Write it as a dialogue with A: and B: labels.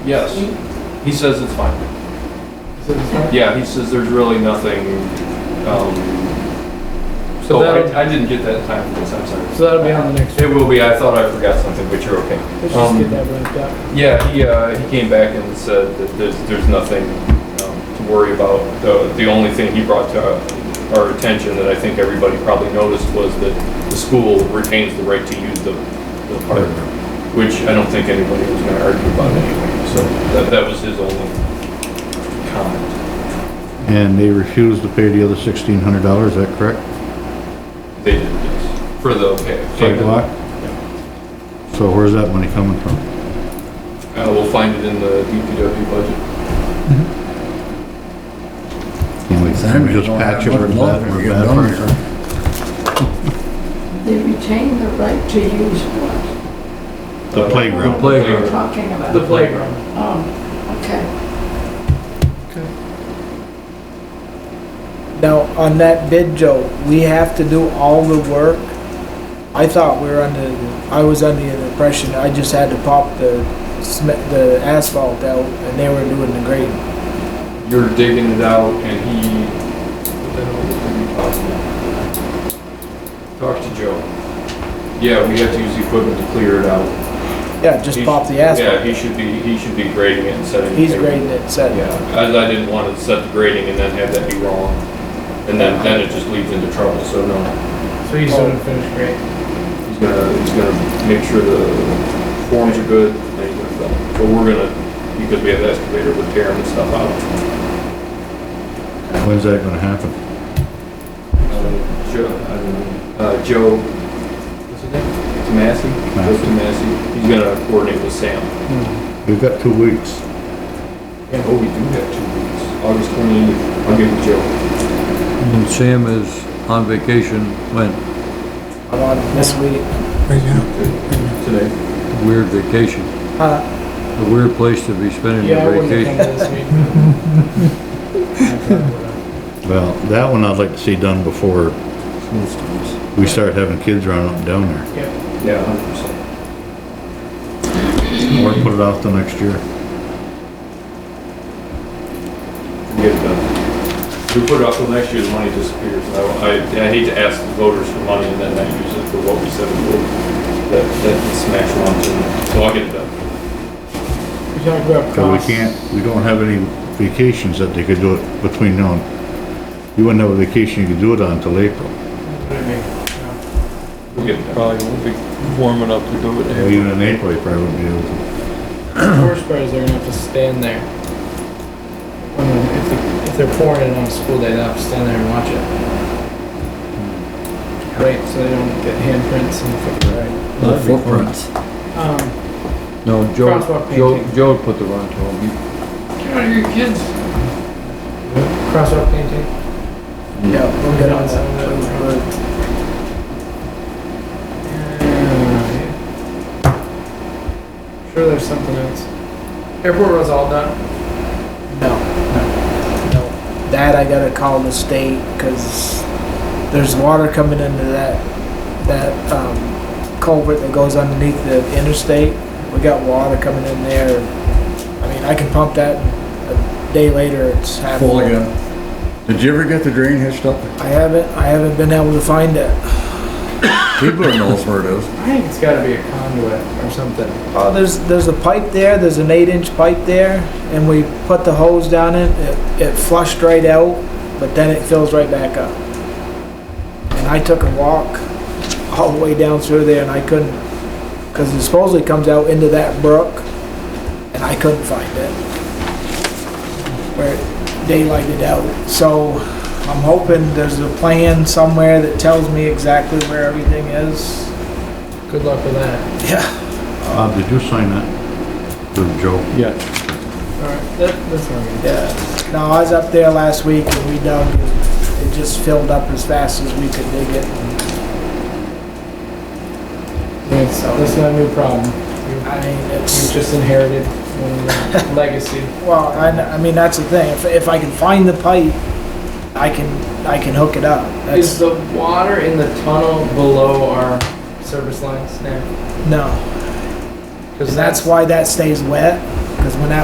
A: Yes. He says it's fine. Yeah, he says there's really nothing, um, so
B: So
A: that, I didn't get that in time for this, I'm sorry.
B: So that'll be on the next
A: It will be, I thought I forgot something, but you're okay.
B: Let's just
A: Um,
B: get that wrapped up.
A: Yeah, he, uh, he came back and said that there's, there's nothing, um, to worry about. The, the only thing he brought to our- our attention that I think everybody probably noticed was that the school retains the right to use the, the park, which I don't think anybody was gonna argue about anyway, so that, that was his only comment.
C: And they refused to pay the other sixteen hundred dollars, is that correct?
A: They did, yes, for the, okay.
C: Sidewalk? So where's that money coming from?
A: Uh, we'll find it in the DPW budget.
C: Can we just patch it, we're bad, we're bad furniture.
D: They retain the right to use what
C: The
A: Uh,
C: playground. The
D: we're
B: playground.
D: talking about.
B: The playground.
D: Oh, okay.
B: Now, on that bid, Joe, we have to do all the work. I thought we were under, I was under the impression I just had to pop the cement, the asphalt out and they were doing the grading.
A: You're digging it out and he, what the hell was it be possible? Talk to Joe. Yeah, we have to use the equipment to clear it out.
B: Yeah, just
A: He-
B: pop the asphalt.
A: Yeah, he should be, he should be grading it and setting.
B: He's
A: it.
B: grading it,
A: Yeah,
B: said,
A: I, I didn't want to set the grading and then have that be wrong. And then, then it just leads into trouble, so no.
E: So he's doing finished great.
A: He's gonna, he's gonna make sure the forms are good and he's gonna fill them. But we're gonna, because we have the excavator, we're tearing the stuff out.
C: When's that gonna happen?
A: Uh, Joe, I don't know, uh, Joe, what's his name? Tomasi? Joe Tomasi. He's gonna coordinate with Sam.
C: We've got two weeks.
A: Oh, we do have two weeks. August 28th, I'll give it to Joe.
F: And Sam is on vacation when?
B: I'm on this week.
A: Today.
F: Weird vacation.
B: Huh?
F: A weird place to be spending
B: Yeah, I
F: your
B: wouldn't have
F: vacation.
B: come this week.
C: Well, that one I'd like to see done before we start having kids running up and down there.
A: Yeah, 100%.
C: Or put it off till next year.
A: We get it done. If we put it off till next year, the money disappears. I, I- I hate to ask the voters for money and then not use it for what we said we would. That, that can smash lunch and, so I'll get it done.
B: We talked about
C: So we
B: costs.
C: can't, we don't have any vacations that they could do it between now and, you wouldn't have a vacation you could do it on till April.
A: We'll get it done.
F: Probably won't be warm enough to do
C: Well, Even in April, you probably wouldn't be able to.
B: The worst part is they're gonna have to stand there. When, if, they- if they're pouring it on a school day, they'll have to stand there and watch it. Right, so they don't get handprints and figure right.
F: The footprints.
B: Um,
F: No, Joe,
B: Crosswalk
F: Joe,
B: painting.
F: Joe put the wrong to him.
A: Get out of here, kids.
B: crosswalk painting? Yeah, we'll get on that. Sure there's something else. Airport was all done? No, no, no. That I gotta call the state, cause there's water coming into that, that, um, culvert that goes underneath the interstate. We got water coming in there. I mean, I can pump that a day later, it's happening.
G: Full again. Did you ever get the drain hitched up?
B: I haven't, I haven't been able to find it.
G: Keebler knows where it is.
E: I think it's gotta be a conduit or something.
B: Oh, there's, there's a pipe there, there's an eight inch pipe there, and we put the hose down in, it, it flushed right out, but then it fills right back up. And I took a walk all the way down through there and I couldn't, cause it supposedly comes out into that brook, and I couldn't find it. Where it daylighted out, so I'm hoping there's a plan somewhere that tells me exactly where everything is.
E: Good luck with that.
B: Yeah,
C: Bob, did you sign that? To Joe?
F: Yeah.
E: Alright, that, that's not good.
B: yeah. No, I was up there last week and we dug, it just filled up as fast as we could dig it.
E: That's, that's not a new problem. You
B: I mean,
E: you
B: it's,
E: just inherited one of the legacy.
B: well, I, I mean, that's the thing. If, if I can find the pipe, I can, I can hook it up.
E: Is
B: That's,
E: the water in the tunnel below our service lines now?
B: no.
E: Cause
B: That's why that stays wet. Cause when that